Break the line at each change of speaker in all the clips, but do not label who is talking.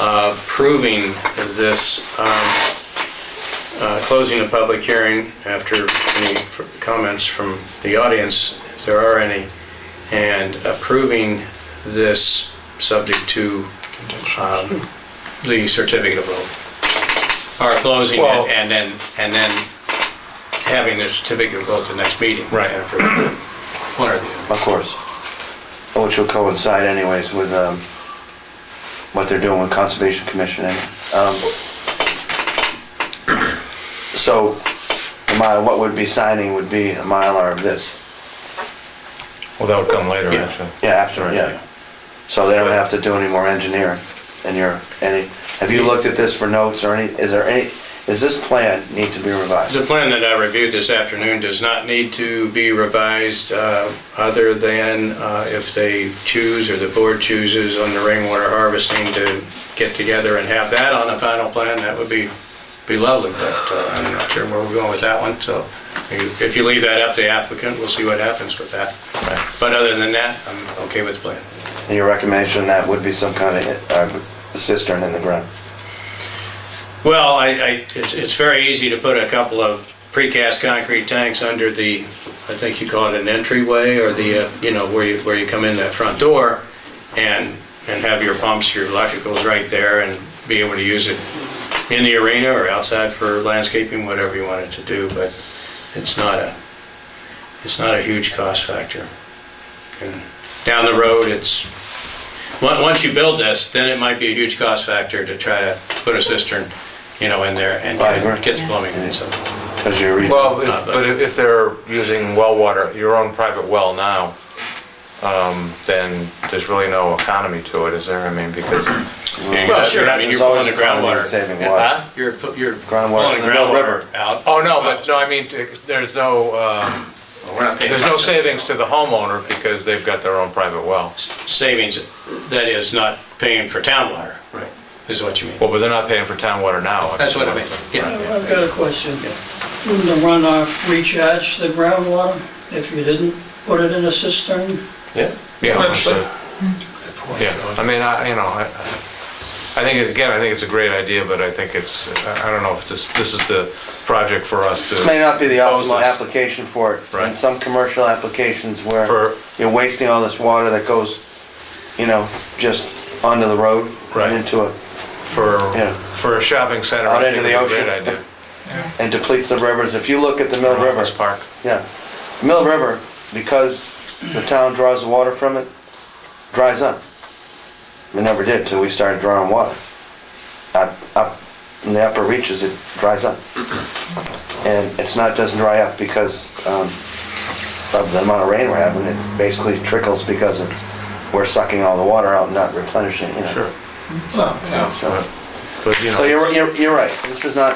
approving this, um, uh, closing the public hearing after any f- comments from the audience, if there are any, and approving this subject to um, the certificate of vote. Or closing it
Well-
and then, and then having the certificate of vote the next meeting.
Right.
And approve it. One or the other.
Of course. Which will coincide anyways with um, what they're doing with Conservation Commission. and, um, So, the mile- what would be signing would be a Mylar of this.
Well, that would come later,
Yeah.
actually.
Yeah, after,
Right,
yeah.
yeah.
So they don't have to do any more engineering and you're, any, have you looked at this for notes or any, is there any, is this plan need to be
The
revised?
plan that I reviewed this afternoon does not need to be revised, uh, other than uh, if they choose, or the board chooses on the rainwater harvesting to get together and have that on the final plan, that would be, be lovely, but uh, I'm not sure where we're going with that one, so you- if you leave that up to the applicant, we'll see what happens with that. But other than that, I'm okay with the plan.
And your recommendation that would be some kind of uh, cistern in the ground?
Well, I, I, it's, it's very easy to put a couple of precast concrete tanks under the, I think you call it an entryway or the, uh, you know, where you, where you come in that front door and, and have your pumps, your electricals right there and be able to use it in the arena or outside for landscaping, whatever you wanted to do, but it's not a, it's not a huge cost factor. And down the road, it's, on- once you build this, then it might be a huge cost factor to try to put a cistern, you know, in there and
Right, right.
get the plumbing and stuff.
Because you're. re-
Well,
Uh,
if-
but-
but if if they're using well water, your own private well now, um, then there's really no economy to it, is there? I mean, because,
Well, sure, I mean, you're
There's always
pulling the
economy in
groundwater.
Saving
Yeah.
water.
huh?
You're, pu- you're
Groundwater
pulling
to the Mill River.
groundwater out.
Oh, no, but, no, I mean, t- there's no, uh,
Oh, We're not paying
there's no
attention.
savings to the homeowner because they've got their own private well.
Savings, that is not paying for town water. Right. Is what you mean.
Well, but they're not paying for town water now.
That's what I mean, yeah.
I've got a question. Wouldn't the runoff recharge the groundwater if you didn't put it in a cistern?
Yeah, understood. Yeah, I mean, I, you know, I, I think, again, I think it's a great idea, but I think it's, I I don't know if this, this is the project for us to.
This may not be the
propose
optimal
this.
application for it. In
Right.
some commercial applications where
For-
you're wasting all this water that goes, you know, just onto the road.
Right.
and Into a,
For,
Yeah.
for a shopping center.
Out
I
into
think
the
it's a Great
ocean.
idea.
and depletes the rivers. If you look at the Mill
Uh-huh.
River,
Office park.
yeah. Mill River, because the town draws the water from it, dries up. It never did till we started drawing water. Up, up, in the upper reaches, it dries up. And it's not, doesn't dry up because um, of the amount of rain we're having, it basically trickles because of, we're sucking all the water out and not replenishing, you know.
Sure.
So,
Uh, But, you
so
know,
you're, you're, you're right, this is not,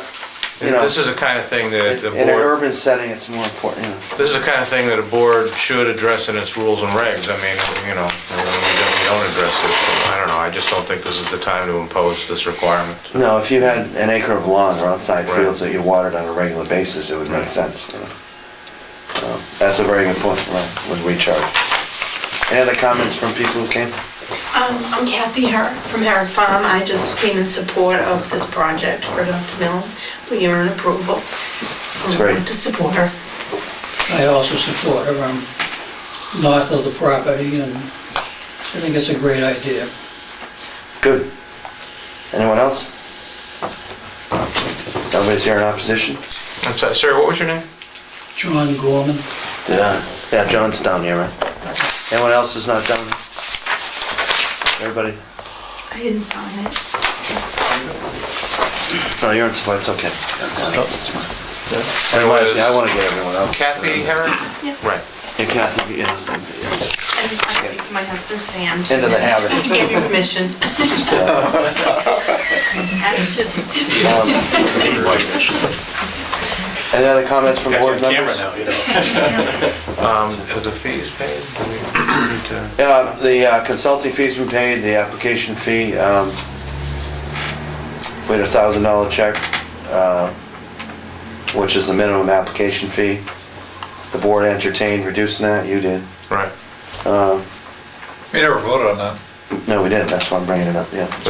you know,
this is the kind of thing that the
in an
board,
urban setting, it's more important, you know.
this is the kind of thing that a board should address in its rules and regs. I mean, you know, I mean, we don't- we don't address this, so I don't know, I just don't think this is the time to impose this requirement.
No, if you had an acre of lawn or outside
Right.
fields that you watered on a regular basis, it would make sense. you know. Um, That's a very good point, uh, right, with recharge. Any other comments from people who came?
Um, I'm Kathy Herrick from Herrick Farm. I just came in support of this project for Dr. Milne. We are in approval.
That's great.
To support her.
I also support it, I'm north of the property, and I think it's a great idea.
Good. Anyone else? Nobody's here in opposition?
I'm sorry, sir, what was your name?
John Gorman,
Yeah, yeah, John's down here, right? Anyone else is not down? Everybody?
I didn't sign it.
No, you're in support, it's okay. It's fine. Anyone else? Yeah, I want to get everyone out.
Kathy Herrick?
Yeah.
Uh, Right.
Yeah, Kathy, yeah.
And I think my husband Sam.
Into the habit.
He gave me permission. As should
Um, Any other comments from
Got your
board
camera
members?
now, you know.
Um, Is the fees paid? Do we need to-
Uh, The uh, consulting fee's been paid, the application fee, um, we had a thousand dollar check, uh, which is the minimum application fee. The board entertained reducing that, you did.
Right.
Uh,
We never voted on that.
No, we didn't, that's why I'm bringing it up, yeah.